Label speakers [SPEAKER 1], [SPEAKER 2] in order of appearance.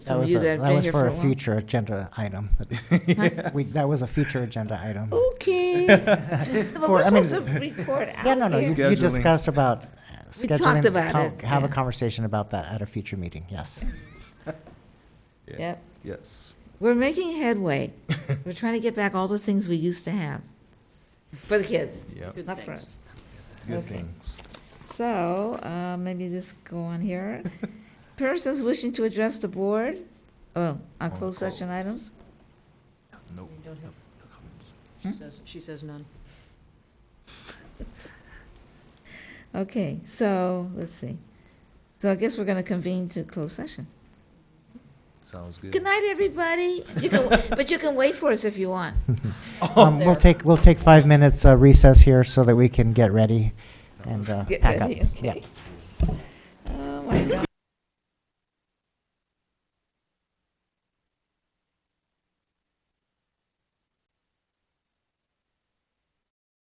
[SPEAKER 1] That
[SPEAKER 2] some of
[SPEAKER 1] was, a-
[SPEAKER 2] you that have
[SPEAKER 1] that
[SPEAKER 2] been
[SPEAKER 1] was
[SPEAKER 2] here
[SPEAKER 1] for a
[SPEAKER 2] while.
[SPEAKER 1] future agenda item. We, that was a future agenda item.
[SPEAKER 2] Okay. Well, we're
[SPEAKER 1] I mean-
[SPEAKER 2] supposed to report out
[SPEAKER 1] Yeah, no, no, you
[SPEAKER 2] here.
[SPEAKER 1] you
[SPEAKER 3] Scheduling.
[SPEAKER 1] discussed about
[SPEAKER 2] We
[SPEAKER 1] scheduling.
[SPEAKER 2] talked about
[SPEAKER 1] co-
[SPEAKER 2] it,
[SPEAKER 1] Have a
[SPEAKER 2] yeah.
[SPEAKER 1] conversation about that at a future meeting, yes.
[SPEAKER 2] Yep.
[SPEAKER 3] Yes.
[SPEAKER 2] We're making headway. We're trying to get back all the things we used to have for the kids,
[SPEAKER 3] Yep.
[SPEAKER 2] not for us.
[SPEAKER 3] Good
[SPEAKER 2] Okay.
[SPEAKER 3] things.
[SPEAKER 2] So, uh, maybe this go on here. Persons wishing to address the board, oh, on closed session items?
[SPEAKER 3] Nope.
[SPEAKER 4] We don't have-
[SPEAKER 3] No comments.
[SPEAKER 4] She says, she says none.
[SPEAKER 2] Okay, so, let's see. So I guess we're gonna convene to close session.
[SPEAKER 3] Sounds good.
[SPEAKER 2] Good night, everybody. You can, but you can wait for us if you want. Oh,
[SPEAKER 1] Um, We'll take, we'll take five minutes uh, recess here so that we can get ready and uh,
[SPEAKER 2] Get
[SPEAKER 1] pack up.
[SPEAKER 2] ready,
[SPEAKER 1] Yeah.
[SPEAKER 2] okay.
[SPEAKER 1] Oh,